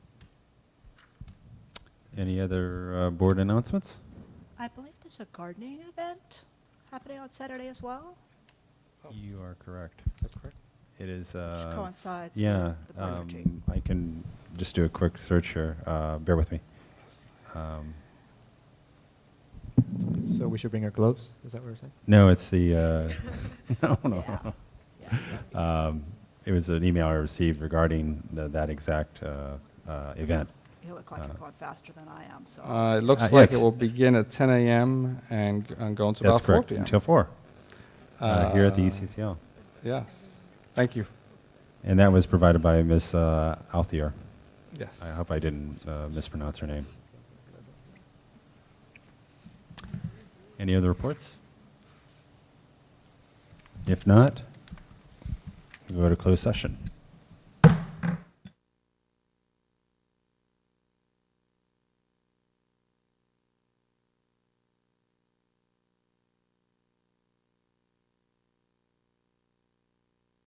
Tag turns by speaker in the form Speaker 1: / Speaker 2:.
Speaker 1: Any other uh, board announcements?
Speaker 2: I believe there's a gardening event happening on Saturday as well,
Speaker 3: Oh,
Speaker 1: You are correct.
Speaker 3: That's correct.
Speaker 1: It is.
Speaker 2: which
Speaker 1: uh,
Speaker 2: coincides
Speaker 1: Yeah.
Speaker 2: with the Burger
Speaker 1: um, I can just do a quick search here. Uh, Bear with me. Um,
Speaker 3: So we should bring our gloves? Is that what we're saying?
Speaker 1: No, it's the, uh, no,
Speaker 2: Yeah.
Speaker 1: no. no. Um, It was an email I received regarding the- that exact uh, uh, event.
Speaker 2: You look like you're
Speaker 1: uh,
Speaker 2: going faster than I am, so.
Speaker 4: Uh, It
Speaker 1: Uh,
Speaker 4: looks like it
Speaker 1: yes.
Speaker 4: will begin at 10 a.m. and g- and go until
Speaker 1: That's
Speaker 4: about 4
Speaker 1: correct,
Speaker 4: p.m.
Speaker 1: until four, uh, here at the
Speaker 4: Uh,
Speaker 1: ECCL.
Speaker 4: Yes. Thank you.
Speaker 1: And that was provided by Ms. uh, Althea.
Speaker 4: Yes.
Speaker 1: I hope I didn't uh, mispronounce her name. Any other reports? If not, we go to closed session.